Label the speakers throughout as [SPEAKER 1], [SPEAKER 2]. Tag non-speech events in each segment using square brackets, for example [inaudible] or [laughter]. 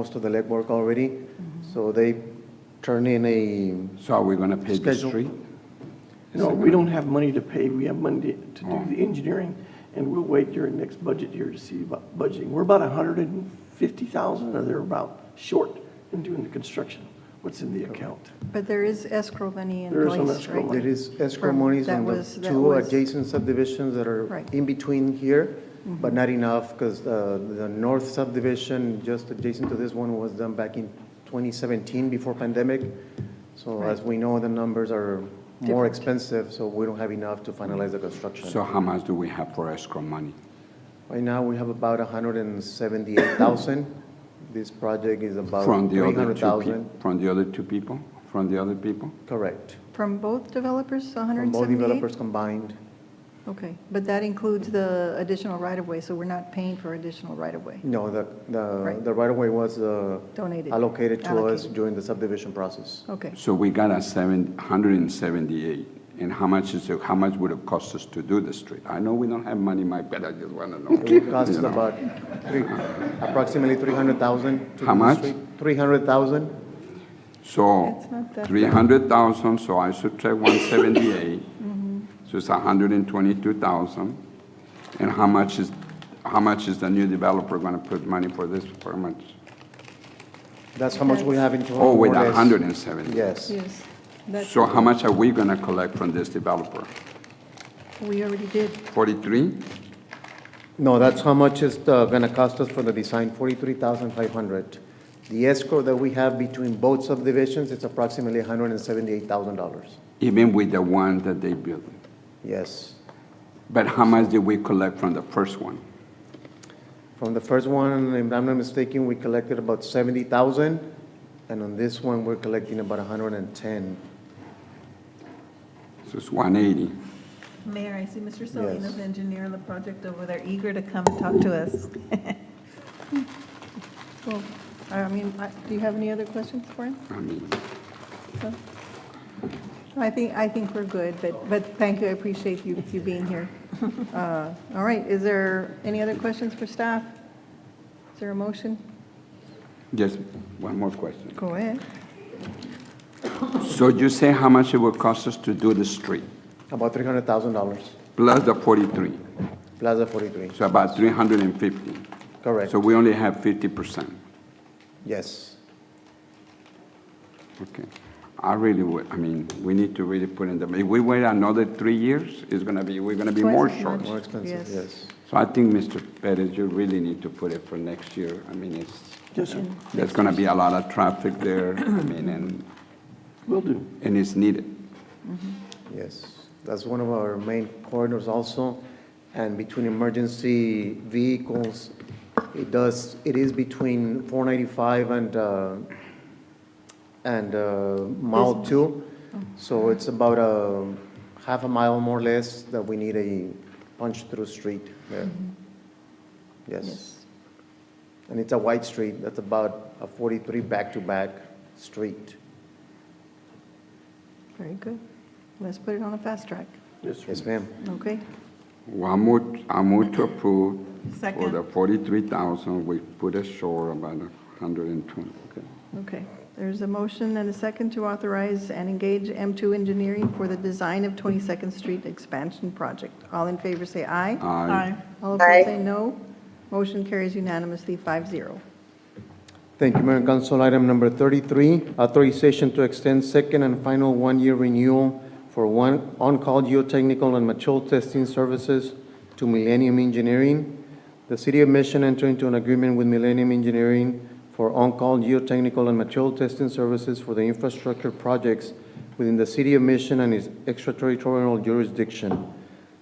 [SPEAKER 1] most of the legwork already. So they turn in a,
[SPEAKER 2] So are we going to pave the
[SPEAKER 1] Schedule.
[SPEAKER 2] street?
[SPEAKER 3] No, we don't have money to pay. We have money to do the engineering, and we'll wait during next budget year to see about budgeting. We're about hundred and fifty thousand or thereabout short in doing the construction, what's in the account.
[SPEAKER 4] But there is escrow money in
[SPEAKER 3] There is some
[SPEAKER 4] place,
[SPEAKER 3] escrow
[SPEAKER 4] right?
[SPEAKER 3] money.
[SPEAKER 1] there is escrow
[SPEAKER 4] From-
[SPEAKER 1] monies
[SPEAKER 4] that
[SPEAKER 1] on the
[SPEAKER 4] was- that
[SPEAKER 1] two
[SPEAKER 4] was-
[SPEAKER 1] adjacent subdivisions that are
[SPEAKER 4] Right. Mm-hmm.
[SPEAKER 1] in between here, but not enough because the north subdivision, just adjacent to this one, was done back in 2017 before pandemic. So as we know, the numbers are more expensive, so we don't have enough to finalize the construction.
[SPEAKER 2] So how much do we have for escrow money?
[SPEAKER 1] Right now, we have about 178,000. This project is about
[SPEAKER 2] From the other two,
[SPEAKER 1] 300,000.
[SPEAKER 2] peo- from the other two people? From the other people?
[SPEAKER 1] Correct.
[SPEAKER 4] From both developers,
[SPEAKER 1] From
[SPEAKER 4] 178?
[SPEAKER 1] both developers combined.
[SPEAKER 4] Okay, but that includes the additional right-of-way, so we're not paying for additional right-of-way
[SPEAKER 1] No, the, the,
[SPEAKER 4] Right.
[SPEAKER 1] the right-of-way was uh,
[SPEAKER 4] donated?
[SPEAKER 1] allocated to us
[SPEAKER 4] Allocated.
[SPEAKER 1] during the subdivision process.
[SPEAKER 4] Okay,
[SPEAKER 2] So we got a seven, hundred and seventy-eight. And how much is, it- how much would it cost us to do the street? I know we don't have money, Mike, but I just want to
[SPEAKER 4] [laughs]
[SPEAKER 2] know.
[SPEAKER 1] It costs
[SPEAKER 2] You know.
[SPEAKER 1] about three, approximately 300,000. to
[SPEAKER 2] How
[SPEAKER 1] do the
[SPEAKER 2] much?
[SPEAKER 1] street. 300,000.
[SPEAKER 2] So
[SPEAKER 4] It's not that bad.
[SPEAKER 2] three hundred thousand, so I subtract one
[SPEAKER 4] [laughs]
[SPEAKER 2] seventy-eight.
[SPEAKER 4] Mm-hmm.
[SPEAKER 2] So it's hundred and twenty-two thousand. And how much is, how much is the new developer going to put money for this, for much?
[SPEAKER 1] That's how much we have in total.
[SPEAKER 2] Oh, with
[SPEAKER 1] more or
[SPEAKER 2] a
[SPEAKER 1] less.
[SPEAKER 2] hundred and seventy?
[SPEAKER 1] Yes.
[SPEAKER 4] yes. That,
[SPEAKER 2] So how much are we gonna collect from this developer?
[SPEAKER 4] we already did.
[SPEAKER 2] Forty-three?
[SPEAKER 1] No, that's how much it's uh, gonna cost us for the design, forty-three thousand five hundred. The escrow that we have between both subdivisions, it's approximately hundred and seventy-eight thousand dollars.
[SPEAKER 2] Even with the one that they built?
[SPEAKER 1] Yes.
[SPEAKER 2] But how much did we collect from the first one?
[SPEAKER 1] From the first one, if I'm not mistaken, we collected about seventy thousand, and on this one, we're collecting about hundred and ten.
[SPEAKER 2] So it's one eighty.
[SPEAKER 5] Mayor, I see Mr.
[SPEAKER 1] Yes.
[SPEAKER 5] Salinas, engineer of the project over there, eager to come and talk to us.
[SPEAKER 4] [laughs] Well, I mean, I- do you have any other questions for him?
[SPEAKER 2] I mean,
[SPEAKER 4] No? I think, I think we're good, but, but thank you, I appreciate you, you being here. [laughs] Uh, All right, is there any other questions for staff? Is there a motion?
[SPEAKER 2] just one more question.
[SPEAKER 4] Go ahead.
[SPEAKER 2] So you say how much it will cost us to do the street,
[SPEAKER 1] About three hundred thousand dollars,
[SPEAKER 2] plus the forty-three,
[SPEAKER 1] Plaza forty-three,
[SPEAKER 2] so about three hundred and fifty.
[SPEAKER 1] correct,
[SPEAKER 2] So we only have fifty percent.
[SPEAKER 1] yes.
[SPEAKER 2] Okay. I really would, I mean, we need to really put in the, if we wait another three years, it's gonna be, we're gonna be
[SPEAKER 4] Twice
[SPEAKER 2] more
[SPEAKER 4] as
[SPEAKER 2] short.
[SPEAKER 4] much.
[SPEAKER 1] More expensive,
[SPEAKER 4] Yes.
[SPEAKER 1] yes.
[SPEAKER 2] So I think, Mr. Perez, you really need to put it for next year. I mean, it's,
[SPEAKER 3] Yes, sir,
[SPEAKER 2] there's going to be a lot of traffic there, I mean, and,
[SPEAKER 3] will do.
[SPEAKER 2] and it's needed.
[SPEAKER 1] Yes, that's one of our main corridors also, and between emergency vehicles, it does, it is between 495 and, uh, and uh, mile two, so it's about a half a mile more or less that we need a punch-through street there. Yes, and it's a wide street, that's about a 43 back-to-back street.
[SPEAKER 4] Very good. Let's put it on a fast track,
[SPEAKER 3] Yes, sir.
[SPEAKER 1] Yes, ma'am.
[SPEAKER 4] okay?
[SPEAKER 2] Well, I move, I move to approve for
[SPEAKER 5] Second.
[SPEAKER 2] the 43,000, we put ashore about 120. Okay.
[SPEAKER 4] Okay. There's a motion and a second to authorize and engage M2 Engineering for the design of 22nd Street Expansion Project. All in favor, say aye.
[SPEAKER 2] Aye.
[SPEAKER 4] All opposed, say no. Motion carries unanimously, 5-0.
[SPEAKER 1] Thank you, Mayor and Council. Item number 33, authorization to extend second and final one-year renewal for one on-call geotechnical and material testing services to Millennium Engineering. The City of Mission entered into an agreement with Millennium Engineering for on-call geotechnical and material testing services for the infrastructure projects within the City of Mission and its extraterritorial jurisdiction.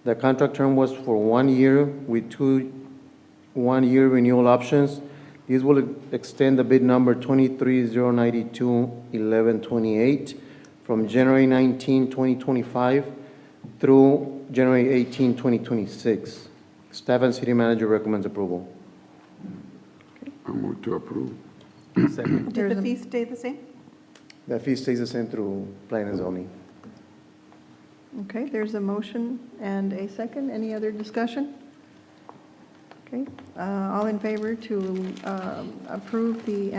[SPEAKER 1] The contract term was for one year with two one-year renewal options. These will extend the bid number 23-092-1128 from January 19, 2025 through January 18, 2026. Staff and city manager recommends approval.
[SPEAKER 2] I move to approve.
[SPEAKER 4] There's
[SPEAKER 5] Did
[SPEAKER 4] a-
[SPEAKER 5] the fee stay the same?
[SPEAKER 1] The fee stays the same through plan and zoning.
[SPEAKER 4] Okay, there's a motion and a second. Any other discussion? Okay, uh, all in favor to um, approve the